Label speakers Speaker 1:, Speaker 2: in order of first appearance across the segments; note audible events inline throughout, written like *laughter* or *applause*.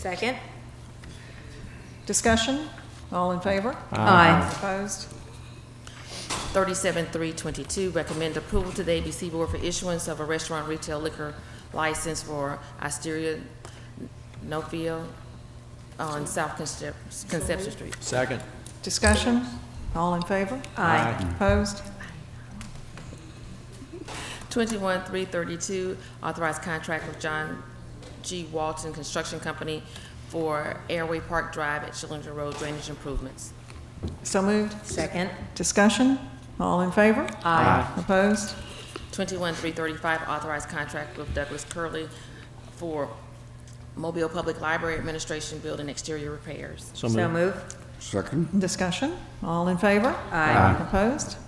Speaker 1: Second?
Speaker 2: Discussion? All in favor?
Speaker 1: Aye.
Speaker 2: Opposed?
Speaker 3: 37322, recommend approval to the ABC Board for issuance of a restaurant retail liquor license for Osteria Nofio on South Concep- Conception Street.
Speaker 4: Second.
Speaker 2: Discussion? All in favor?
Speaker 1: Aye.
Speaker 2: Opposed?
Speaker 3: 21332, authorized contract with John G. Walton Construction Company for Airway Park Drive at Schillinger Road drainage improvements.
Speaker 2: So moved.
Speaker 1: Second?
Speaker 2: Discussion? All in favor?
Speaker 1: Aye.
Speaker 2: Opposed?
Speaker 3: 21335, authorized contract with Douglas Curley for Mobile Public Library Administration Building exterior repairs.
Speaker 4: So
Speaker 1: So
Speaker 4: moved.
Speaker 1: moved.
Speaker 5: Second,
Speaker 2: Discussion? All in favor?
Speaker 1: Aye.
Speaker 2: Opposed?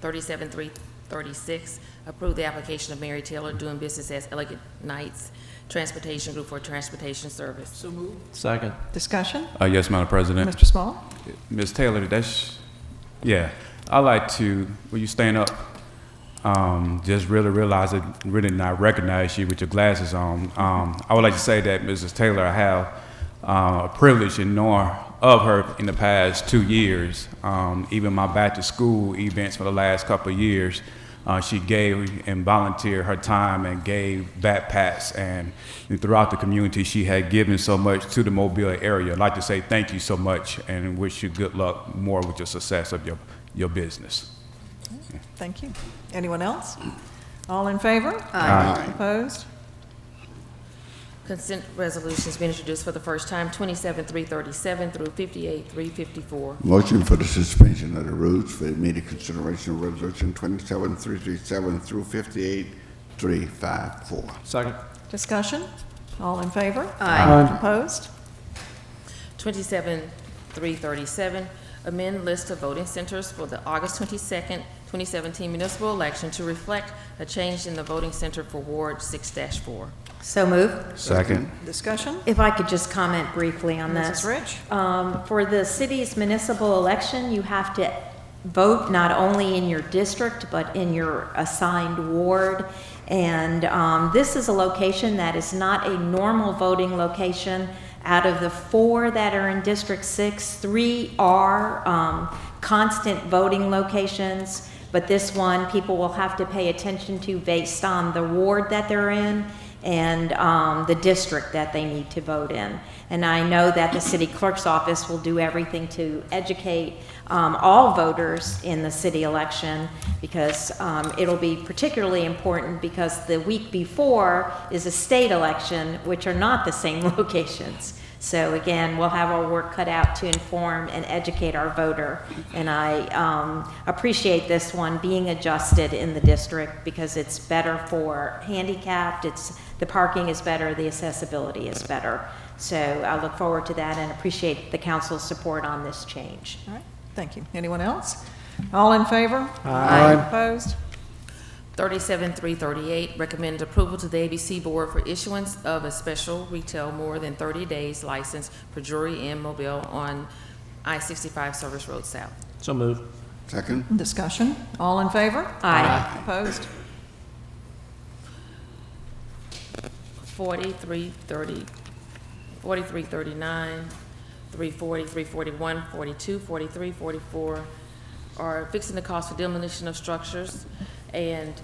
Speaker 3: 37336, approve the application of Mary Taylor doing business as Elegant Knights Transportation Group for transportation service.
Speaker 4: Second.
Speaker 2: Discussion?
Speaker 6: Uh, yes, Madam President.
Speaker 2: Mr. Small?
Speaker 6: Ms. Taylor, that's, yeah, I like to, will you stand up? Um, just really realize it, really not recognize you with your glasses on. Um, I would like to say that Mrs. Taylor, I have uh, a privilege in knowing of her in the past two years. Um, even my back to school events for the last couple of years, uh, she gave and volunteered her time and gave backpacks and throughout the community she had given so much to the mobile area i'd like to say thank you so much and wish you good luck more with your success of your, your business
Speaker 2: Thank you. Anyone else? All in favor? Aye. Opposed?
Speaker 3: Consent resolutions being introduced for the first time, 27337 through 58354.
Speaker 5: motion for the suspension of the rules for immediate consideration of resolution 27337 through 58354.
Speaker 4: Second.
Speaker 2: Discussion? All in favor?
Speaker 1: Aye.
Speaker 2: Opposed?
Speaker 3: 27337, amend list of voting centers for the August 22nd, 2017 municipal election to reflect a change in the voting center for Ward 6-4.
Speaker 1: So moved.
Speaker 6: second
Speaker 2: Discussion?
Speaker 1: If I could just comment briefly on this.
Speaker 2: Mrs. Rich?
Speaker 1: Um, For the city's municipal election, you have to vote not only in your district, but in your assigned ward. And um, this is a location that is not a normal voting location. Out of the four that are in District 6, three are um, constant voting locations, but this one, people will have to pay attention to based on the ward that they're in and um, the district that they need to vote in. And I know that the city clerk's office will do everything to educate um, all voters in the city election because um, it'll be particularly important because the week before is a state election, which are not the same *laughs* locations. So again, we'll have our work cut out to inform and educate our voter. And I um, appreciate this one being adjusted in the district because it's better for handicapped, it's, the parking is better, the accessibility is better. So I look forward to that and appreciate the council's support on this change.
Speaker 2: All right, thank you. Anyone else? All in favor? Aye. Opposed?
Speaker 3: 37338, recommend approval to the ABC Board for issuance of a special retail more than 30 days license for Drury and Mobile on I-65 Service Road South.
Speaker 4: So moved.
Speaker 5: Second,
Speaker 2: Discussion? All in favor?
Speaker 1: Aye.
Speaker 2: Opposed?
Speaker 3: 4330, 4339, 340, 341, 42, 43, 44 are fixing the cost for demolition of structures, and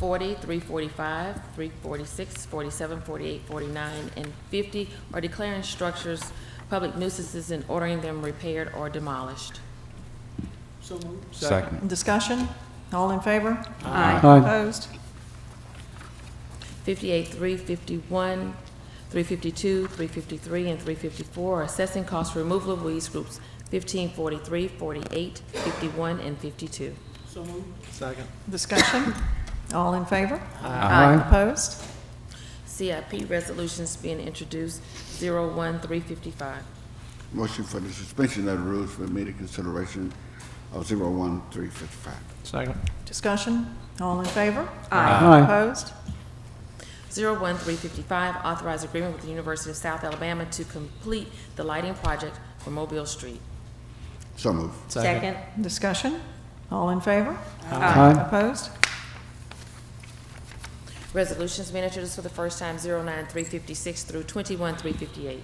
Speaker 3: 40, 345, 346, 47, 48, 49, and 50 are declaring structures public nuisances and ordering them repaired or demolished.
Speaker 6: second
Speaker 2: Discussion? All in favor?
Speaker 1: Aye.
Speaker 2: Opposed?
Speaker 3: 58, 351, 352, 353, and 354 are assessing costs for removal of weeds groups 15, 43, 48, 51, and 52.
Speaker 4: Second.
Speaker 2: Discussion? All in favor?
Speaker 1: Aye.
Speaker 2: Opposed?
Speaker 3: CIP resolutions being introduced 01355.
Speaker 5: motion for the suspension of the rules for immediate consideration of 01355.
Speaker 4: Second.
Speaker 2: Discussion? All in favor? Aye. Opposed?
Speaker 3: 01355, authorize agreement with the University of South Alabama to complete the lighting project for Mobile Street.
Speaker 5: So moved.
Speaker 1: Second?
Speaker 2: Discussion? All in favor?
Speaker 1: Aye.
Speaker 2: Opposed?
Speaker 3: Resolutions being introduced for the first time 09356 through 21358.